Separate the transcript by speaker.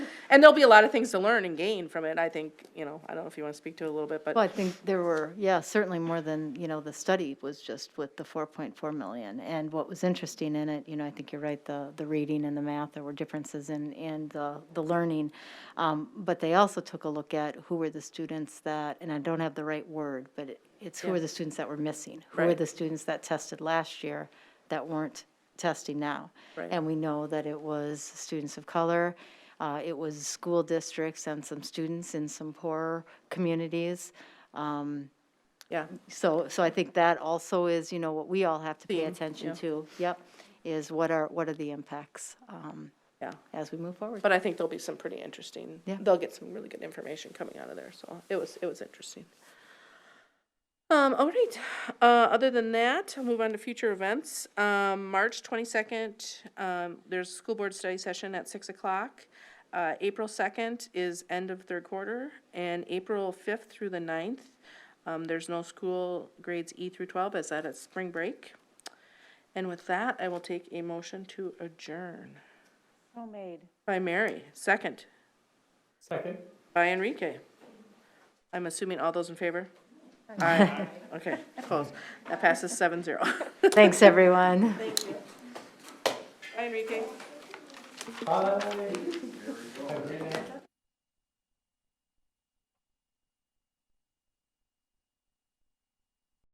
Speaker 1: And there'll be a lot of things to learn and gain from it, I think, you know, I don't know if you want to speak to it a little bit, but.
Speaker 2: Well, I think there were, yeah, certainly more than, you know, the study was just with the 4.4 million. And what was interesting in it, you know, I think you're right, the, the reading and the math, there were differences in, in the, the learning. Um, But they also took a look at who were the students that, and I don't have the right word, but it- it's who were the students that were missing? Who were
Speaker 1: Right.
Speaker 2: the students that tested last year that weren't testing now?
Speaker 1: Right.
Speaker 2: And we know that it was students of color, uh, it was school districts and some students in some poorer communities.
Speaker 1: Yeah,
Speaker 2: So, so I think that also is, you know, what we all have to pay
Speaker 1: Theme,
Speaker 2: attention
Speaker 1: yeah.
Speaker 2: to. Yep, is what are, what are the impacts um,
Speaker 1: yeah.
Speaker 2: as we move forward?
Speaker 1: But I think there'll be some pretty interesting,
Speaker 2: Yeah.
Speaker 1: they'll get some really good information coming out of there, so it was, it was interesting. Um, all right, uh, other than that, I'll move on to future events. Um, March twenty-second, um, there's a school board study session at six o'clock. Uh, April second is end of third quarter, and April fifth through the 9th, um, there's no school grades E through twelve, as that is spring break. And with that, I will take a motion to adjourn.
Speaker 3: So made.
Speaker 1: By Mary, second.
Speaker 4: Second.
Speaker 1: By Enrique. I'm assuming all those in favor? Aye. Okay, close. That passes seven zero.
Speaker 2: Thanks, everyone.
Speaker 1: Bye, Enrique.
Speaker 4: Aye.